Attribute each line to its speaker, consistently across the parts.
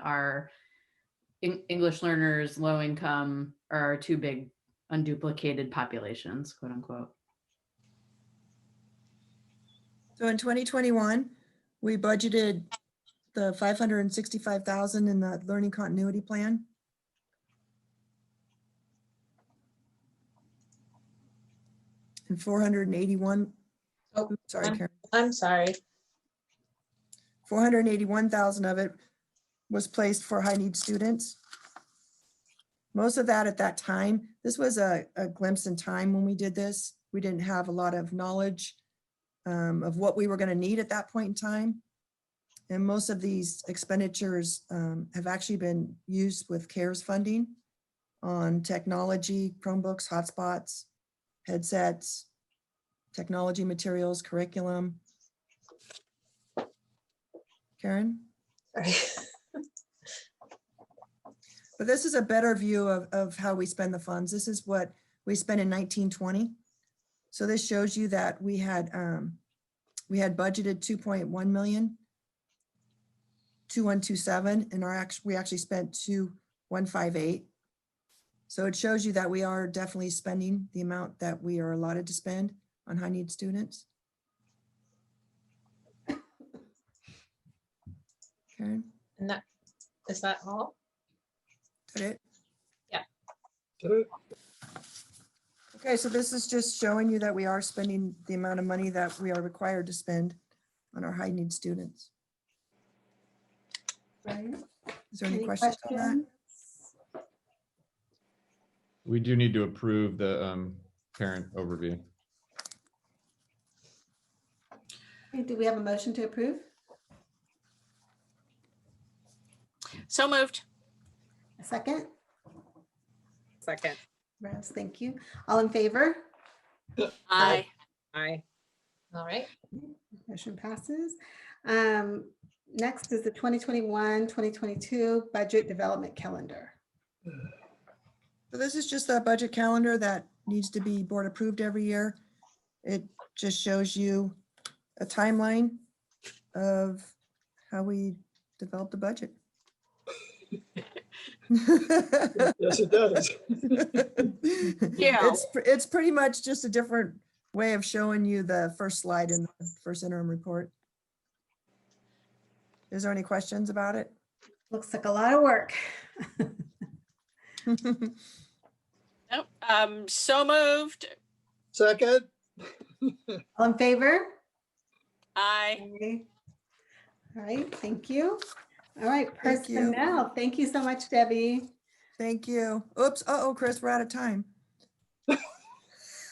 Speaker 1: our Eng- English learners, low income are our two big unduplicated populations, quote unquote.
Speaker 2: So in 2021, we budgeted the 565,000 in the learning continuity plan. And 481,
Speaker 3: Oh,
Speaker 2: sorry,
Speaker 3: I'm-
Speaker 2: Karen,
Speaker 3: I'm sorry.
Speaker 2: 481,000 of it was placed for high-need students. Most of that at that time, this was a a glimpse in time when we did this. We didn't have a lot of knowledge um, of what we were going to need at that point in time. And most of these expenditures um, have actually been used with CARES funding on technology, Chromebooks, hotspots, headsets, technology materials, curriculum. Karen?
Speaker 3: Sorry.
Speaker 2: But this is a better view of, of how we spend the funds. This is what we spent in nineteen twenty. So this shows you that we had, um, we had budgeted two point one million, two one two seven, and our act, we actually spent two one five eight. So it shows you that we are definitely spending the amount that we are allotted to spend on high need students. Karen,
Speaker 3: And that, is that all?
Speaker 2: is that it?
Speaker 4: Ta-da.
Speaker 2: Okay, so this is just showing you that we are spending the amount of money that we are required to spend on our high-need students. Is there any questions on that?
Speaker 5: We do need to approve the um, parent overview.
Speaker 6: Okay, Do we have a motion to approve?
Speaker 7: So moved.
Speaker 6: A second?
Speaker 3: Second.
Speaker 6: Rouse, thank you. All in favor?
Speaker 7: Aye.
Speaker 3: Aye. All right.
Speaker 6: Motion passes. Um, Next is the 2021, 2022 Budget Development Calendar.
Speaker 2: So this is just that budget calendar that needs to be board approved every year. It just shows you a timeline of how we develop the budget.
Speaker 4: Yes, it does.
Speaker 7: Yeah.
Speaker 2: It's, pr- it's pretty much just a different way of showing you the first slide in the first interim report. Is there any questions about it?
Speaker 6: Looks like a lot of work.
Speaker 7: Nope. Um, so moved.
Speaker 4: Second,
Speaker 6: All in favor?
Speaker 7: Aye.
Speaker 6: Okay. All right, thank you. All right,
Speaker 2: Thank you.
Speaker 6: personnel. Thank you so much, Debbie.
Speaker 2: Thank you. Oops, uh-oh, Chris, we're out of time.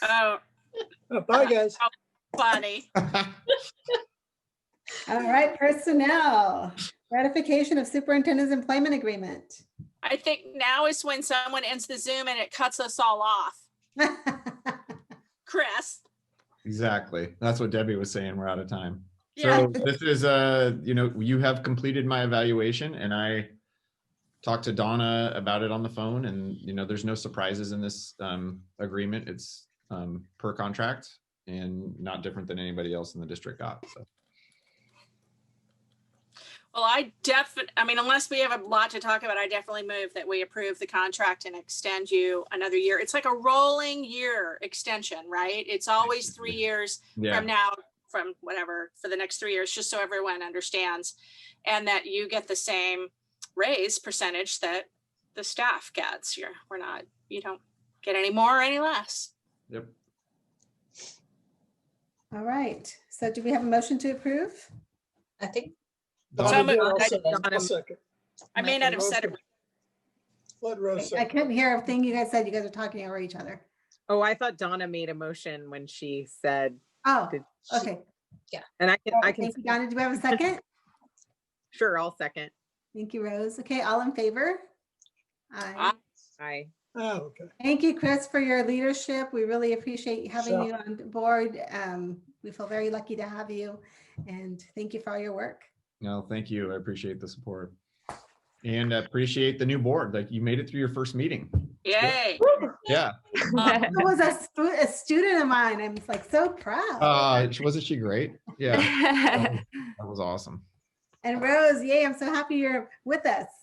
Speaker 7: Oh,
Speaker 4: Oh, bye, guys.
Speaker 7: funny.
Speaker 6: All right, personnel. Ratification of Superintendent's Employment Agreement.
Speaker 7: I think now is when someone ends the Zoom and it cuts us all off. Chris?
Speaker 5: Exactly. That's what Debbie was saying. We're out of time.
Speaker 7: Yeah.
Speaker 5: So this is, uh, you know, you have completed my evaluation and I talked to Donna about it on the phone and, you know, there's no surprises in this um, agreement. It's um, per contract and not different than anybody else in the district got. So
Speaker 7: Well, I definitely, I mean, unless we have a lot to talk about, I definitely move that we approve the contract and extend you another year. It's like a rolling year extension, right? It's always three years.
Speaker 5: yeah,
Speaker 7: from now, from whatever, for the next three years, just so everyone understands. And that you get the same raise percentage that the staff gets. You're, we're not, you don't get any more or any less.
Speaker 5: yep.
Speaker 6: All right, so do we have a motion to approve?
Speaker 3: I think,
Speaker 4: Donna did
Speaker 7: moved. I
Speaker 4: also.
Speaker 7: did not-
Speaker 4: I'll second.
Speaker 7: I may not have said it.
Speaker 4: Let Rose
Speaker 6: I
Speaker 4: second.
Speaker 6: couldn't hear a thing you guys said. You guys are talking over each other.
Speaker 8: Oh, I thought Donna made a motion when she said,
Speaker 6: Oh,
Speaker 8: Did
Speaker 6: okay.
Speaker 8: and I can,
Speaker 6: All
Speaker 8: I
Speaker 6: right,
Speaker 8: can,
Speaker 6: Oh, Thank you, Donna. Do we have a second?
Speaker 8: sure, I'll second.
Speaker 6: Thank you, Rose. Okay, all in favor? Aye.
Speaker 7: Aye.
Speaker 8: I,
Speaker 4: Oh, okay.
Speaker 6: Thank you, Chris, for your leadership. We really appreciate having
Speaker 4: Sure.
Speaker 6: you on board. Um, We feel very lucky to have you and thank you for all your work.
Speaker 5: No, thank you. I appreciate the support. And appreciate the new board. Like you made it through your first meeting.
Speaker 7: Yay.
Speaker 5: Yeah.
Speaker 7: Um,
Speaker 6: It was a stu- a student of mine. I'm like so proud.
Speaker 5: Uh, wasn't she great? Yeah. That was awesome.
Speaker 6: And Rose, yay, I'm so happy you're with us.